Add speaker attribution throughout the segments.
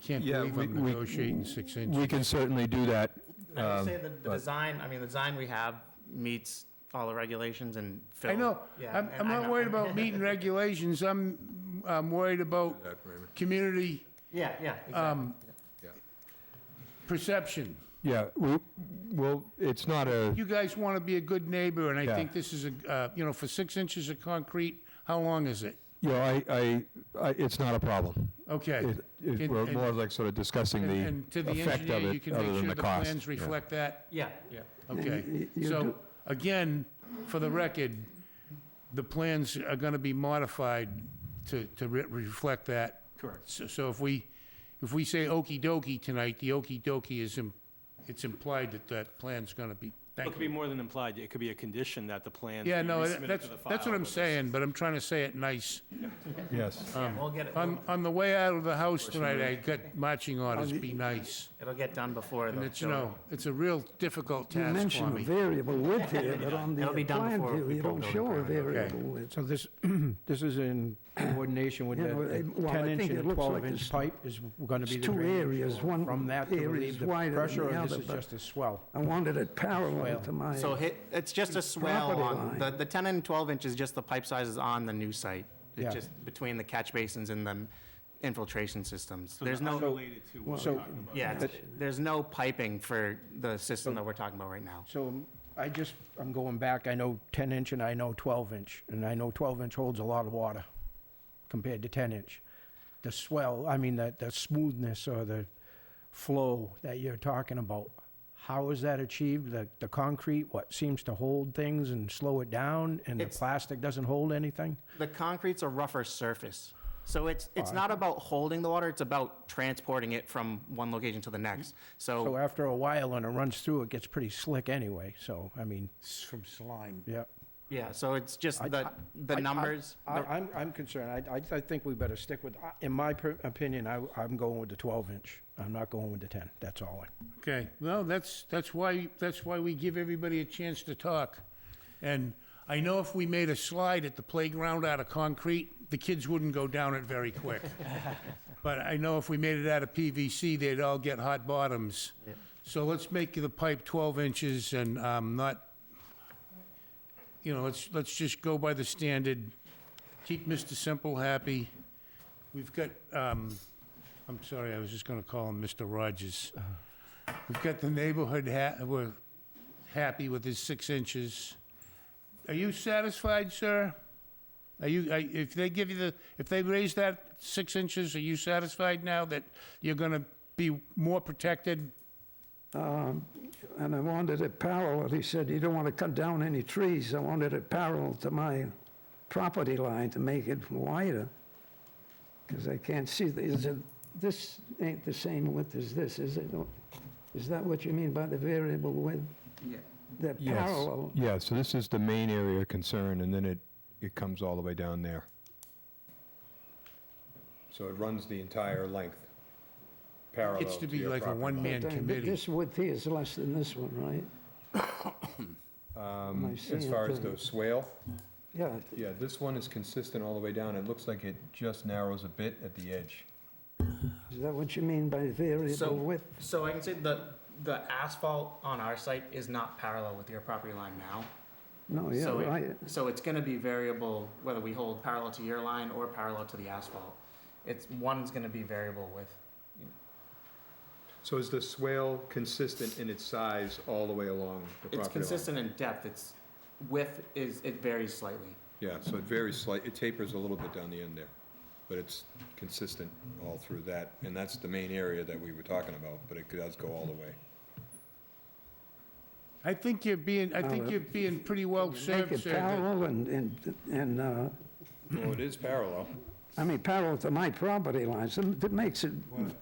Speaker 1: can't
Speaker 2: Yeah,
Speaker 1: believe
Speaker 2: we-
Speaker 1: I'm
Speaker 2: we-
Speaker 1: negotiating six
Speaker 2: We
Speaker 1: inches.
Speaker 2: can certainly do that.
Speaker 3: I
Speaker 2: um,
Speaker 3: would say the, the
Speaker 2: but-
Speaker 3: design, I mean, the design we have meets all the regulations and fill.
Speaker 1: I know,
Speaker 3: Yeah,
Speaker 1: I'm,
Speaker 3: and
Speaker 1: I'm
Speaker 3: I
Speaker 1: not
Speaker 3: know.
Speaker 1: worried about meeting regulations, I'm, I'm worried about community
Speaker 3: Yeah, yeah,
Speaker 1: um,
Speaker 3: exactly.
Speaker 1: perception.
Speaker 2: Yeah, we, well, it's not a,
Speaker 1: You guys want to be a good neighbor, and I
Speaker 2: Yeah.
Speaker 1: think this is a, uh, you know, for six inches of concrete, how long is it?
Speaker 2: you know, I, I, I- it's not a problem.
Speaker 1: Okay.
Speaker 2: It, it-
Speaker 1: And-
Speaker 2: we're
Speaker 1: and-
Speaker 2: more like sort of discussing
Speaker 1: And-
Speaker 2: the
Speaker 1: And to the
Speaker 2: effect of
Speaker 1: engineer, you
Speaker 2: it,
Speaker 1: can
Speaker 2: other
Speaker 1: make
Speaker 2: than
Speaker 1: sure
Speaker 2: the
Speaker 1: the
Speaker 2: cost.
Speaker 1: plans
Speaker 2: Yeah.
Speaker 1: reflect that?
Speaker 3: Yeah, yeah.
Speaker 1: Okay.
Speaker 4: you
Speaker 1: So,
Speaker 4: do-
Speaker 1: again, for the record, the plans are going to be modified to, to re- reflect that.
Speaker 3: Correct.
Speaker 1: So- So if we, if we say okey-dokey tonight, the okey-dokey is, im- it's implied that that plan's going to be,
Speaker 5: It
Speaker 1: thank
Speaker 5: could be
Speaker 1: you.
Speaker 5: more than implied, it could be a condition that the plans be
Speaker 1: Yeah, no,
Speaker 5: resubmitted to the
Speaker 1: that's, that's
Speaker 5: file
Speaker 1: what I'm
Speaker 5: with us.
Speaker 1: saying, but I'm trying to say it nice.
Speaker 2: Yes.
Speaker 1: um,
Speaker 3: Yeah, We'll get it,
Speaker 1: On, on the way out of the house tonight, I got marching orders, be nice.
Speaker 3: it'll get done before
Speaker 1: And
Speaker 3: the.
Speaker 1: it's, you know, it's a real difficult
Speaker 4: You
Speaker 1: task for
Speaker 4: mention a
Speaker 1: me.
Speaker 4: variable width here, but on the
Speaker 3: That'll be done
Speaker 4: plan
Speaker 3: before
Speaker 4: view,
Speaker 3: we
Speaker 4: you
Speaker 3: pull
Speaker 4: don't
Speaker 3: building
Speaker 4: show a
Speaker 3: permit. Okay.
Speaker 4: variable width.
Speaker 6: So this, this is in coordination with
Speaker 4: Yeah,
Speaker 6: the
Speaker 4: well,
Speaker 6: the
Speaker 4: I- well, I
Speaker 6: 10-inch
Speaker 4: think it
Speaker 6: and
Speaker 4: looks like
Speaker 6: 12-inch
Speaker 4: it's-
Speaker 6: pipe is going to
Speaker 4: it's
Speaker 6: be the
Speaker 4: two
Speaker 6: drainage
Speaker 4: areas,
Speaker 6: for-
Speaker 4: one
Speaker 6: From that to
Speaker 4: area
Speaker 6: relieve
Speaker 4: is
Speaker 6: the
Speaker 4: wider than
Speaker 6: pressure,
Speaker 4: the
Speaker 6: or this
Speaker 4: other,
Speaker 6: is
Speaker 4: but-
Speaker 6: just a swell?
Speaker 4: I wanted it parallel to my,
Speaker 3: So hit, it's just a swell
Speaker 4: Property
Speaker 3: on,
Speaker 4: line.
Speaker 3: the, the 10 and 12 inch is just the pipe sizes on the new site.
Speaker 6: Yeah.
Speaker 3: It's just between the catch basins and the infiltration systems.
Speaker 5: So
Speaker 3: There's
Speaker 5: they're
Speaker 3: no,
Speaker 5: unrelated to what
Speaker 6: So-
Speaker 5: we're talking about.
Speaker 3: yeah, it's- there's no piping for the system that we're talking about right now.
Speaker 6: So um, I just, I'm going back, I know 10-inch and I know 12-inch, and I know 12-inch holds a lot of water compared to 10-inch. The swell, I mean, the, the smoothness or the flow that you're talking about, how is that achieved? The, the concrete, what, seems to hold things and slow it down, and the
Speaker 3: It's-
Speaker 6: plastic doesn't hold anything?
Speaker 3: The concrete's a rougher surface. So it's, it's not about holding the water, it's about transporting it from one location to the next.
Speaker 6: So
Speaker 1: Oh.
Speaker 3: So,
Speaker 6: after a while, and it runs through, it gets pretty slick anyway, so, I mean,
Speaker 1: It's from slime.
Speaker 6: yeah.
Speaker 3: yeah, so it's just
Speaker 6: I-
Speaker 3: the,
Speaker 6: I-
Speaker 3: the
Speaker 6: I-
Speaker 3: numbers.
Speaker 6: I, I'm, I'm concerned, I, I, I think we better stick with, I- in my per- opinion, I, I'm going with the twelve inch, I'm not going with the ten, that's all. I-
Speaker 1: Okay, well, that's, that's why, that's why we give everybody a chance to talk. And I know if we made a slide at the playground out of concrete, the kids wouldn't go down it very quick. But I know if we made it out of PVC, they'd all get hot bottoms. So let's make the pipe 12 inches and um, not, you know, let's, let's just go by the standard, keep Mr. Simple happy. We've got, um, I'm sorry, I was just gonna call him Mr. Rogers. We've got the neighborhood ha, we're happy with his six inches. Are you satisfied, sir? Are you, are- if they give you the, if they raise that six inches, are you satisfied now that you're gonna be more protected?
Speaker 4: and I wanted it parallel. He said, you don't want to cut down any trees. I wanted it parallel to my property line to make it wider. Because I can't see, the- is it, this ain't the same width as this, is it? Is that what you mean by the variable width? Yeah. They're
Speaker 2: Yes,
Speaker 4: parallel.
Speaker 2: yeah, so this is the main area of concern, and then it, it comes all the way down there. So it runs the entire length, parallel
Speaker 1: It's to be
Speaker 2: your
Speaker 1: like a
Speaker 2: property line.
Speaker 1: one-man
Speaker 4: But, uh,
Speaker 1: committee.
Speaker 4: This width here is less than this one, right? Am I
Speaker 2: Um, As
Speaker 4: seeing
Speaker 2: far
Speaker 4: it
Speaker 2: as
Speaker 4: right?
Speaker 2: the swale,
Speaker 4: Yeah,
Speaker 2: yeah, this one is consistent all the way down, it looks like it just narrows a bit at the edge.
Speaker 4: is that what you mean by
Speaker 3: So-
Speaker 4: variable width?
Speaker 3: So I can say the, the asphalt on our site is not parallel with your property line now.
Speaker 4: No, yeah,
Speaker 3: So it-
Speaker 4: right.
Speaker 3: So it's gonna be variable whether we hold parallel to your line or parallel to the asphalt. It's, one's gonna be variable with.
Speaker 2: So is the swale consistent in its size all the way along the property line?
Speaker 3: It's consistent in depth, it's, width is, it varies slightly.
Speaker 2: Yeah, so it varies slight, it tapers a little bit down the end there, but it's consistent all through that, and that's the main area that we were talking about, but it does go all the way.
Speaker 1: I think you're being, I think
Speaker 4: Well,
Speaker 1: you're being pretty well
Speaker 4: Make
Speaker 1: served,
Speaker 4: it
Speaker 1: sir.
Speaker 4: parallel and, and, and, uh,
Speaker 2: Well, it is parallel.
Speaker 4: I mean, parallel to my property lines, and that makes it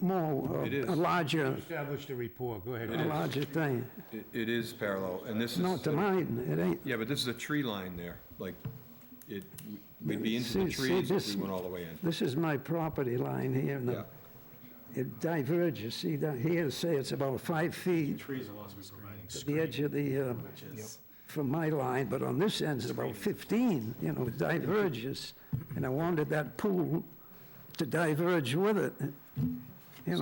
Speaker 4: more, uh,
Speaker 2: It is.
Speaker 4: a larger,
Speaker 1: Establish the rapport, go
Speaker 4: a
Speaker 1: ahead.
Speaker 4: larger thing.
Speaker 2: It, it is parallel, and this is.
Speaker 4: Not to mine, it ain't.
Speaker 2: Yeah, but this is a tree line there, like, it, we'd be into the
Speaker 4: See- see
Speaker 2: trees if
Speaker 4: this-
Speaker 2: we went all the way in.
Speaker 4: This is my property line here, and
Speaker 2: Yeah,
Speaker 4: the- it diverges, see, down here, say it's about five feet
Speaker 5: Trees are also providing.
Speaker 4: to the edge of the, uh, from my line, but on this end it's about 15, you know, it diverges, and I wanted that pool to diverge with it.